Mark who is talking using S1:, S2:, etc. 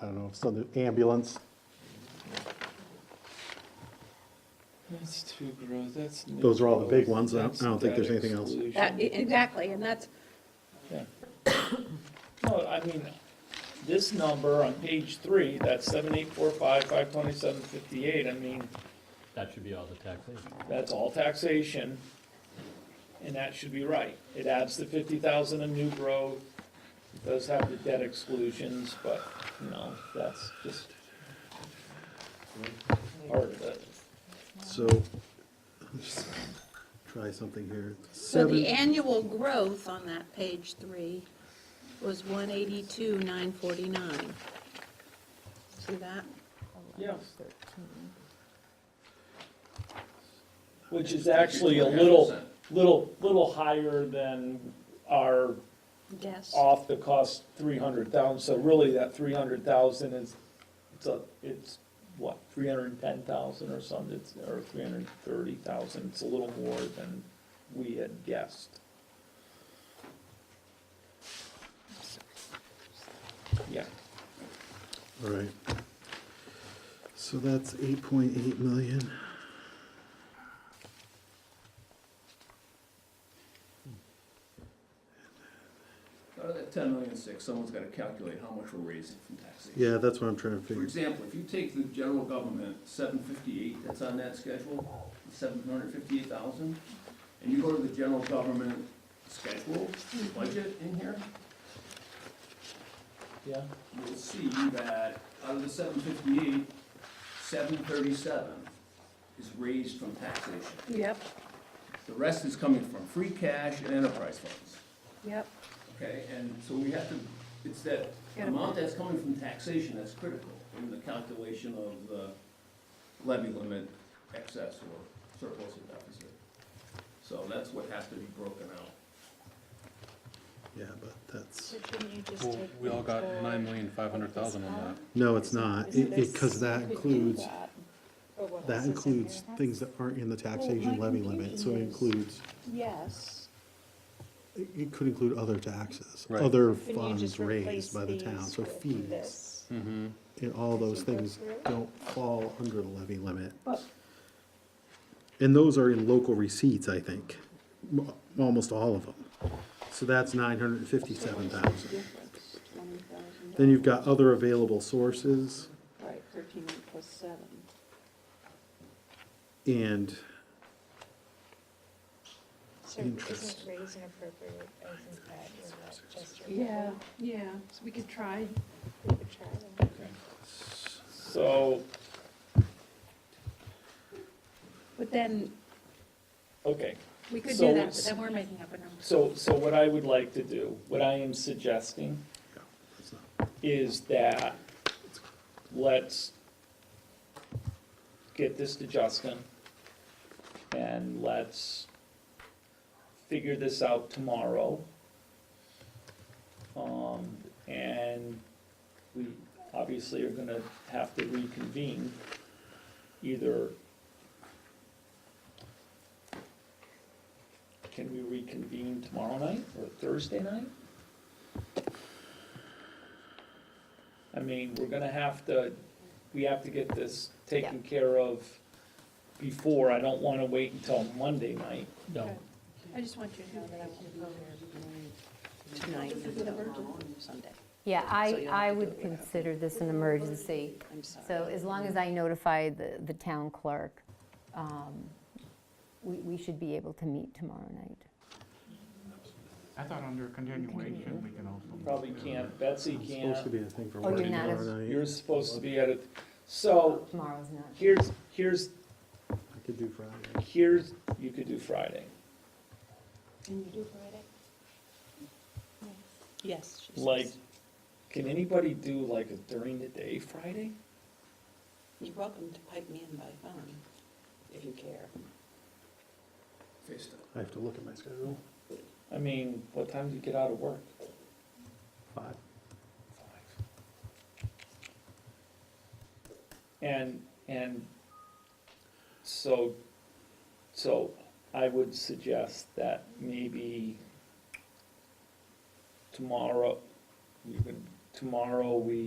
S1: I don't know, so the ambulance,
S2: That's too gross, that's.
S1: Those are all the big
S2: new.
S1: ones. I don't- I don't think there's
S2: That's
S1: anything else.
S2: exclusion.
S3: That- Exactly, and that's,
S2: Yeah. No, I mean, this number on page three, that's seven eight four five, five twenty-seven fifty-eight, I mean,
S4: That should be all the taxation.
S2: that's all taxation. And that should be right. It adds the fifty thousand in new growth, it does have the debt exclusions, but, you know, that's just part of it.
S1: so, let's try something here.
S3: so
S1: Seven,
S3: the annual growth on that page three was one eighty-two, nine forty-nine. See that?
S2: Yeah. Which is actually a little, little, little higher than our
S3: Yes.
S2: off the cost three hundred thousand, so really that three hundred thousand is, it's a, it's what, three hundred and ten thousand or something, it's, or three hundred and thirty thousand, it's a little more than we had guessed. Yeah,
S1: all right. So that's eight point eight million.
S5: Out of that ten million six, someone's gotta calculate how much we're raising from taxation.
S1: Yeah, that's what I'm trying to
S5: For
S1: figure.
S5: example, if you take the general government, seven fifty-eight, that's on that schedule, seven hundred fifty-eight thousand, and you go to the general government schedule, budget in here,
S2: yeah,
S5: you'll see that out of the seven fifty-eight, seven thirty-seven is raised from taxation.
S3: Yep,
S5: The rest is coming from free cash and enterprise funds.
S3: yep.
S5: Okay, and so we have to, it's that
S3: Gotta
S5: amount that's coming from taxation that's critical in the calculation of the levy limit excess or surplus or deficit. So that's what has to be broken out.
S1: Yeah, but that's,
S6: Well, we all got nine million five hundred thousand on that.
S1: no, it's not, it, it, cause that includes, that includes things that aren't in the taxation levy limit, so it includes,
S7: Yes.
S1: it it could include other taxes,
S6: Right.
S7: Can
S1: other
S7: you just
S1: funds
S7: replace
S1: raised by the
S7: these
S1: town, so
S7: with
S1: fees.
S7: this?
S6: Mm-hmm.
S1: And all those
S7: Can you go
S1: things
S7: through?
S1: don't fall under the levy limit.
S7: But
S1: And those are in local receipts, I think, m- almost all of them. So that's nine hundred and fifty-seven thousand.
S7: difference, twenty thousand.
S1: Then you've got other available sources
S7: Right, thirteen plus seven.
S1: and,
S8: So isn't
S1: Interest.
S8: raise and appropriate, isn't that, is that just your?
S3: Yeah, yeah, so we could try.
S8: We could try that.
S2: so,
S3: But then,
S2: okay.
S3: we could
S2: So
S3: do that,
S2: it's-
S3: but then we're making up a number.
S2: So, so what I would like to do, what I am suggesting is that, let's get this to Justin, and let's figure this out tomorrow. Um, and we obviously are gonna have to reconvene either. Can we reconvene tomorrow night or Thursday night? I mean, we're gonna have to, we have to get this taken care of before, I don't wanna wait until Monday night.
S4: No,
S3: I just want you to know that I won't be here tonight and Sunday.
S9: Yeah,
S3: So
S9: I,
S3: you'll have
S9: I
S3: to do
S9: would
S3: it after.
S9: consider this an emergency.
S3: I'm sorry.
S9: So as long as I notify the, the town clerk, um, we, we should be able to meet tomorrow night.
S10: I thought under continuation, we can also.
S2: Probably can't, Betsy
S1: it's supposed to
S2: can't,
S1: be a thing for
S9: Oh, you're
S1: working
S9: not
S1: tomorrow
S9: as-
S1: night.
S2: you're supposed to be at it, so,
S9: Tomorrow's not.
S2: here's, here's,
S1: I could do Friday.
S2: here's, you could do Friday.
S7: Can you do Friday?
S3: Yes. she says.
S2: Like, can anybody do like a during the day Friday?
S3: You're welcome to pipe me in by phone, if you care.
S5: Face it.
S1: I have to look at my schedule.
S2: I mean, what time do you get out of work?
S1: Five.
S2: And, and so, so I would suggest that maybe tomorrow, you could, tomorrow we